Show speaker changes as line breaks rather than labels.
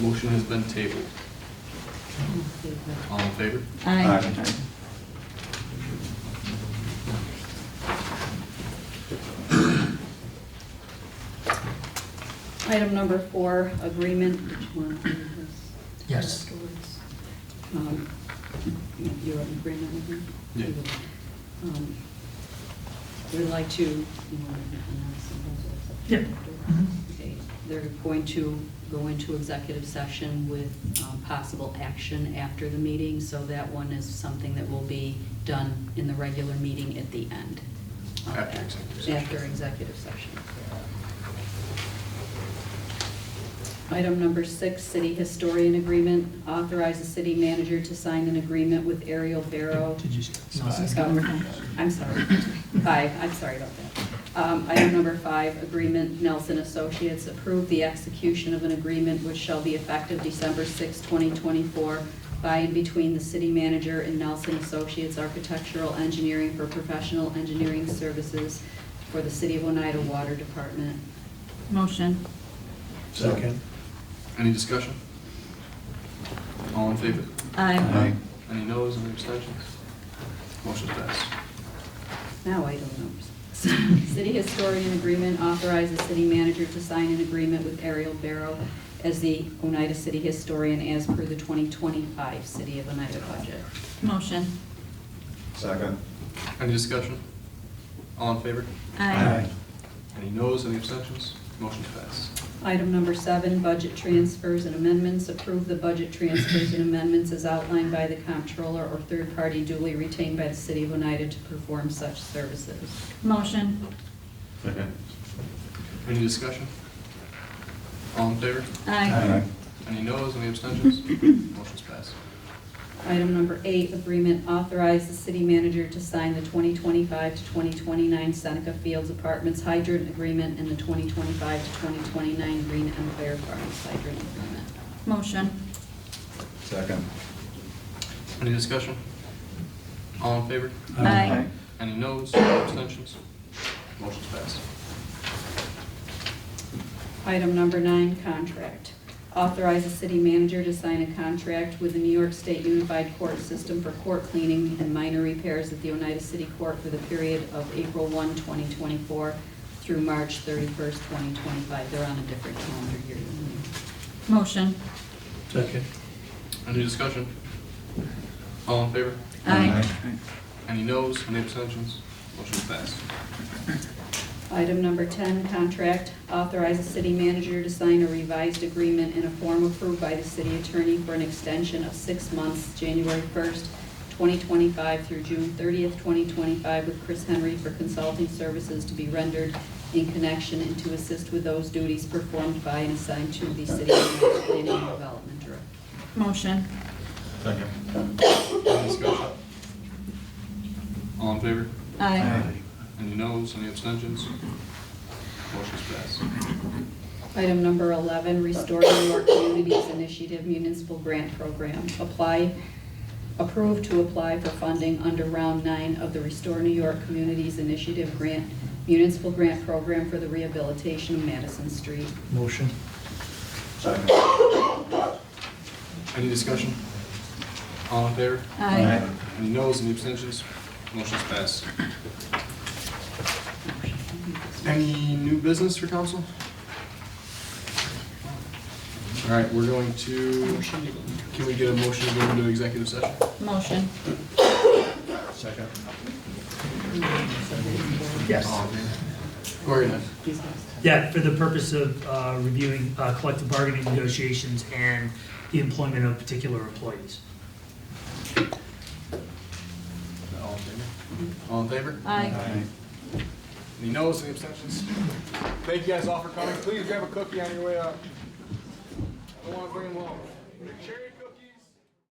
Motion has been tabled. All in favor?
Aye.
Item number four, agreement, which one is this?
Yes.
Afterwards. Um, You're in agreement with me?
Yeah.
Um, We'd like to, you know, announce some of those.
Yeah. Mhm.
Okay. They're going to go into executive session with um, possible action after the meeting, so that one is something that will be done in the regular meeting at the end. of
After
that.
executive session.
After executive session. Item number six, city historian agreement, authorize the city manager to sign an agreement with Ariel Barrow.
Did you? see-
Uh, I'm sorry, five, I'm sorry about that. Um, Item number five, agreement Nelson Associates approve the execution of an agreement which shall be effective December 6, 2024, by and between the city manager and Nelson Associates Architectural Engineering for professional engineering services for the City of Oneida Water Department.
Motion.
Second.
Any discussion? All in favor?
Aye.
Any noes, any abstentions? Motion passed.
Now I don't know. City historian agreement authorizes the city manager to sign an agreement with Ariel Barrow as the Oneida City Historian as per the 2025 City of Oneida budget.
Motion.
Second.
Any discussion? All in favor?
Aye.
Any noes, any abstentions? Motion passed.
Item number seven, budget transfers and amendments. Approve the budget transfers and amendments as outlined by the comptroller or third party duly retained by the City of Oneida to perform such services.
Motion.
Second.
Any discussion? All in favor?
Aye.
Any noes, any abstentions? Motion's passed.
Item number eight, agreement authorize the city manager to sign the 2025 to 2029 Seneca Fields Apartments hydrant agreement and the 2025 to 2029 Green Empire Farms hydrant agreement.
Motion.
Second.
Any discussion? All in favor?
Uh,
Aye.
Any noes, any abstentions? Motion's passed.
Item number nine, contract. Authorize the city manager to sign a contract with the New York State Unified Court System for court cleaning and minor repairs at the Oneida City Court for the period of April 1, 2024 through March 31st, 2025. They're on a different calendar year than we.
Motion.
Second.
Any discussion? All in favor?
Aye.
Any noes, any abstentions? Motion's passed.
Item number 10, contract, authorize the city manager to sign a revised agreement in a form approved by the city attorney for an extension of six months, January 1st, 2025 through June 30th, 2025, with Chris Henry for consulting services to be rendered in connection and to assist with those duties performed by and assigned to the city manager, planning and development director.
Motion.
Second.
Any discussion? All in favor?
Aye.
Any noes, any abstentions? Motion's passed.
Item number 11, Restore New York Communities Initiative Municipal Grant Program. Apply, approve to apply for funding under Round 9 of the Restore New York Communities Initiative Grant, Municipal Grant Program for the rehabilitation of Madison Street.
Motion.
Second.
Any discussion? All in favor?
Aye.
Any noes, any abstentions? Motion's passed. Any new business for council? All right, we're going to, can we get a motion to go into executive session?
Motion.
Second.
Yes.
Go ahead.
These guys.
Yeah, for the purpose of uh, reviewing uh, collective bargaining negotiations and the employment of particular employees.
All in favor? All in favor?
Aye.
Any noes, any abstentions? Thank you guys all for coming. Please grab a cookie on your way out. I don't want to bring them home. Cherry